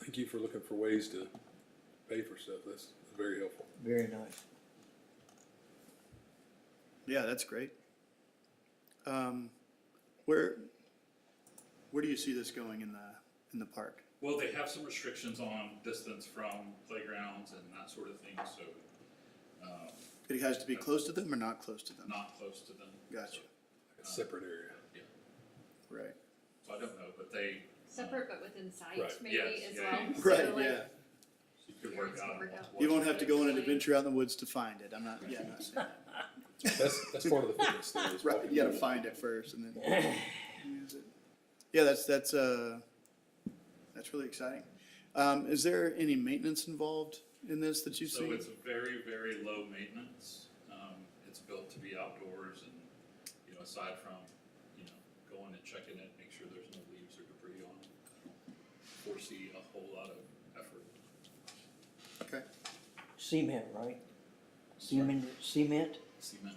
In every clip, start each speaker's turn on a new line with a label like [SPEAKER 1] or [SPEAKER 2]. [SPEAKER 1] thank you for looking for ways to pay for stuff. That's very helpful.
[SPEAKER 2] Very nice.
[SPEAKER 3] Yeah, that's great. Um, where, where do you see this going in the, in the park?
[SPEAKER 4] Well, they have some restrictions on distance from playgrounds and that sort of thing, so
[SPEAKER 3] It has to be close to them or not close to them?
[SPEAKER 4] Uh, not close to them.
[SPEAKER 3] Gotcha,
[SPEAKER 1] Separate area.
[SPEAKER 4] Yeah,
[SPEAKER 3] right.
[SPEAKER 4] so I don't know, but they,
[SPEAKER 5] Separate but within sight
[SPEAKER 1] Right,
[SPEAKER 5] maybe
[SPEAKER 4] yes,
[SPEAKER 5] as
[SPEAKER 4] yeah,
[SPEAKER 5] well.
[SPEAKER 4] yeah.
[SPEAKER 5] So,
[SPEAKER 3] Right,
[SPEAKER 5] like,
[SPEAKER 3] yeah.
[SPEAKER 4] you could work out.
[SPEAKER 5] Work out.
[SPEAKER 3] You won't have to go on an adventure out in the woods to find it. I'm not, yeah, I'm not saying that.
[SPEAKER 1] That's, that's part of the fitness thing. is
[SPEAKER 3] Right,
[SPEAKER 1] walking
[SPEAKER 3] you gotta
[SPEAKER 1] people.
[SPEAKER 3] find it first and then use it. Yeah, that's, that's, uh, that's really exciting. Um, is there any maintenance involved in this that you've
[SPEAKER 4] So
[SPEAKER 3] seen?
[SPEAKER 4] it's very, very low maintenance. Um, it's built to be outdoors and, you know, aside from, you know, going and checking it, make sure there's no leaves or debris on it. I don't Foresee a whole lot of effort.
[SPEAKER 3] Okay,
[SPEAKER 2] Cement, right? Cement, cement?
[SPEAKER 4] Cement,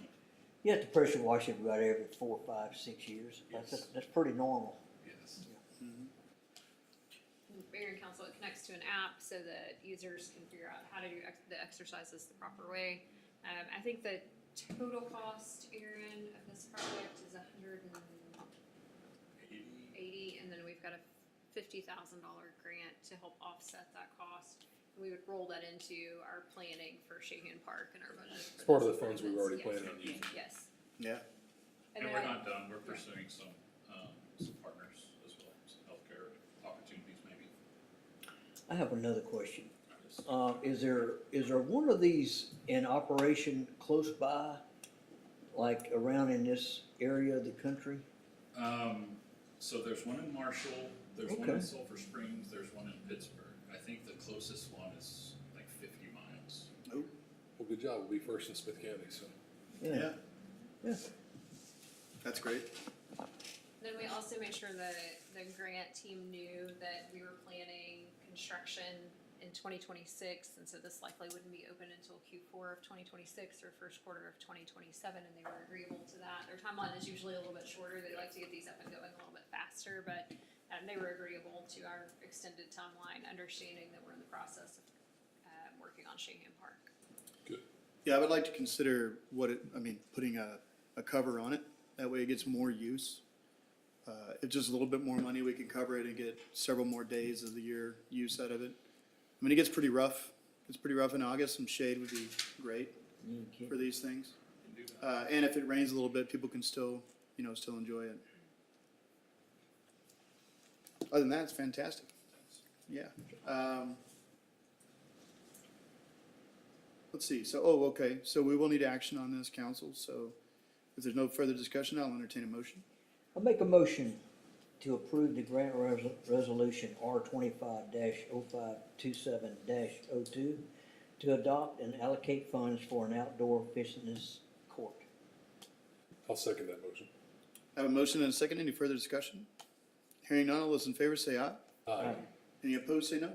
[SPEAKER 2] You have to pressure wash it about every four, five, six years. That's,
[SPEAKER 4] Yes.
[SPEAKER 2] that's pretty normal.
[SPEAKER 4] yes.
[SPEAKER 5] Mayor and council, it connects to an app so that users can figure out how to do ex- the exercises the proper way. Um, I think the total cost, Aaron, of this project is hundred and
[SPEAKER 4] Eighty,
[SPEAKER 5] eighty, and then we've got a fifty thousand dollar grant to help offset that cost. We would roll that into our planning for Shahan Park and our budget.
[SPEAKER 1] It's part of the funds we've already planned on
[SPEAKER 5] planned
[SPEAKER 1] using.
[SPEAKER 5] Yes,
[SPEAKER 3] yeah,
[SPEAKER 5] and
[SPEAKER 4] And
[SPEAKER 5] then
[SPEAKER 4] we're
[SPEAKER 5] I,
[SPEAKER 4] not done, we're pursuing some, um, some partners as well, some healthcare opportunities maybe.
[SPEAKER 2] I have another question. Uh, is there, is there one of these in operation close by? Like around in this area of the country?
[SPEAKER 4] Um, so there's one in Marshall, there's one in
[SPEAKER 2] Okay.
[SPEAKER 4] Sulphur Springs, there's one in Pittsburgh. I think the closest one is like fifty miles.
[SPEAKER 1] Well, good job. We'll be first in Smith County, so.
[SPEAKER 3] yeah,
[SPEAKER 2] Yeah.
[SPEAKER 3] that's great.
[SPEAKER 5] then we also made sure that the grant team knew that we were planning construction in twenty twenty-six, and so this likely wouldn't be open until Q four of twenty twenty-six or first quarter of twenty twenty-seven, and they were agreeable to that. Their timeline is usually a little bit shorter, they like to get these up and going a little bit faster, but um, they were agreeable to our extended timeline, understanding that we're in the process of, um, working on Shahan Park.
[SPEAKER 1] Good.
[SPEAKER 3] Yeah, I would like to consider what it, I mean, putting a, a cover on it, that way it gets more use. Uh, it's just a little bit more money, we can cover it and get several more days of the year use out of it. I mean, it gets pretty rough, it's pretty rough in August, some shade would be great for these things. Uh, and if it rains a little bit, people can still, you know, still enjoy it. Other than that, it's fantastic. Yeah. Um, let's see. So, oh, okay. So we will need action on this, council. So if there's no further discussion, I'll entertain a motion.
[SPEAKER 2] I make a motion to approve the grant res- resolution R twenty-five oh 527 2 oh to adopt and allocate funds for an outdoor fitness court.
[SPEAKER 1] I'll second that motion.
[SPEAKER 3] I have a motion and a second. Any further discussion? Hearing none, all those in favor say aye.
[SPEAKER 1] Aye.
[SPEAKER 3] Any opposed, say no.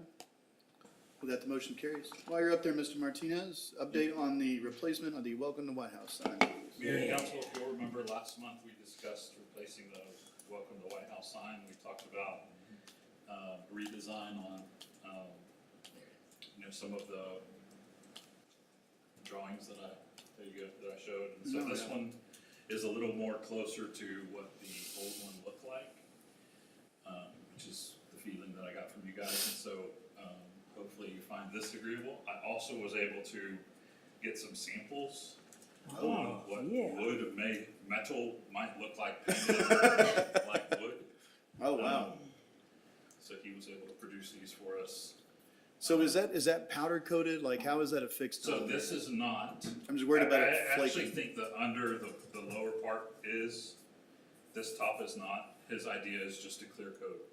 [SPEAKER 3] With that, the motion carries. While you're up there, Mr. Martinez, update on the replacement of the Welcome to White House sign.
[SPEAKER 4] Mayor and council, if you'll remember last month, we discussed replacing the welcome to White House sign. We talked about, uh, redesign on, um, you know, some of the drawings that I, there you go, that I showed. And so
[SPEAKER 3] No,
[SPEAKER 4] this
[SPEAKER 3] yeah.
[SPEAKER 4] one is a little more closer to what the old one looked like, um, which is the feeling that I got from you guys. And so, um, hopefully you find this agreeable. I also was able to get some samples on
[SPEAKER 2] Oh,
[SPEAKER 4] what
[SPEAKER 2] yeah.
[SPEAKER 4] wood of ma- metal might look like painted like wood.
[SPEAKER 3] Oh, wow.
[SPEAKER 4] Um, So he was able to produce these for us.
[SPEAKER 3] So is that, is that powder coated? Like, how is that affixed? to
[SPEAKER 4] So
[SPEAKER 2] Oh.
[SPEAKER 3] the-
[SPEAKER 4] this is not.
[SPEAKER 3] I'm just worried about
[SPEAKER 4] I-
[SPEAKER 3] it
[SPEAKER 4] I actually
[SPEAKER 3] flaking.
[SPEAKER 4] think the under, the, the lower part is, this top is not. His idea is just to clear coat,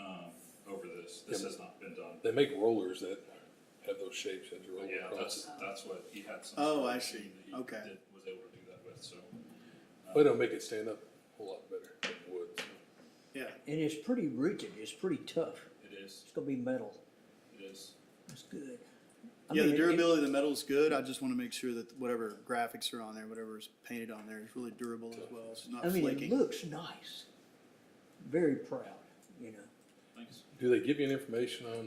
[SPEAKER 4] um, over this. This has not been done.
[SPEAKER 1] They make rollers that have those shapes as you roll
[SPEAKER 4] Yeah,
[SPEAKER 1] across.
[SPEAKER 4] that's, that's what he had some.
[SPEAKER 3] Oh, I
[SPEAKER 4] machine
[SPEAKER 3] see.
[SPEAKER 4] that he
[SPEAKER 3] Okay.
[SPEAKER 4] did- Was able to do that with, so.
[SPEAKER 1] But it'll make it stand up a whole lot better than wood.
[SPEAKER 3] Yeah.
[SPEAKER 2] And it's pretty rigid, it's pretty tough,
[SPEAKER 4] It is,
[SPEAKER 2] it's gonna be metal,
[SPEAKER 4] it is.
[SPEAKER 2] it's good. I
[SPEAKER 3] Yeah,
[SPEAKER 2] mean,
[SPEAKER 3] the
[SPEAKER 2] it-
[SPEAKER 3] durability of the metal is good. I just want to make sure that whatever graphics are on there, whatever's painted on there is really durable as well. It's not
[SPEAKER 2] I mean, it
[SPEAKER 3] flaking.
[SPEAKER 2] looks nice, very proud, you know.
[SPEAKER 4] Thanks.
[SPEAKER 1] Do they give you any information on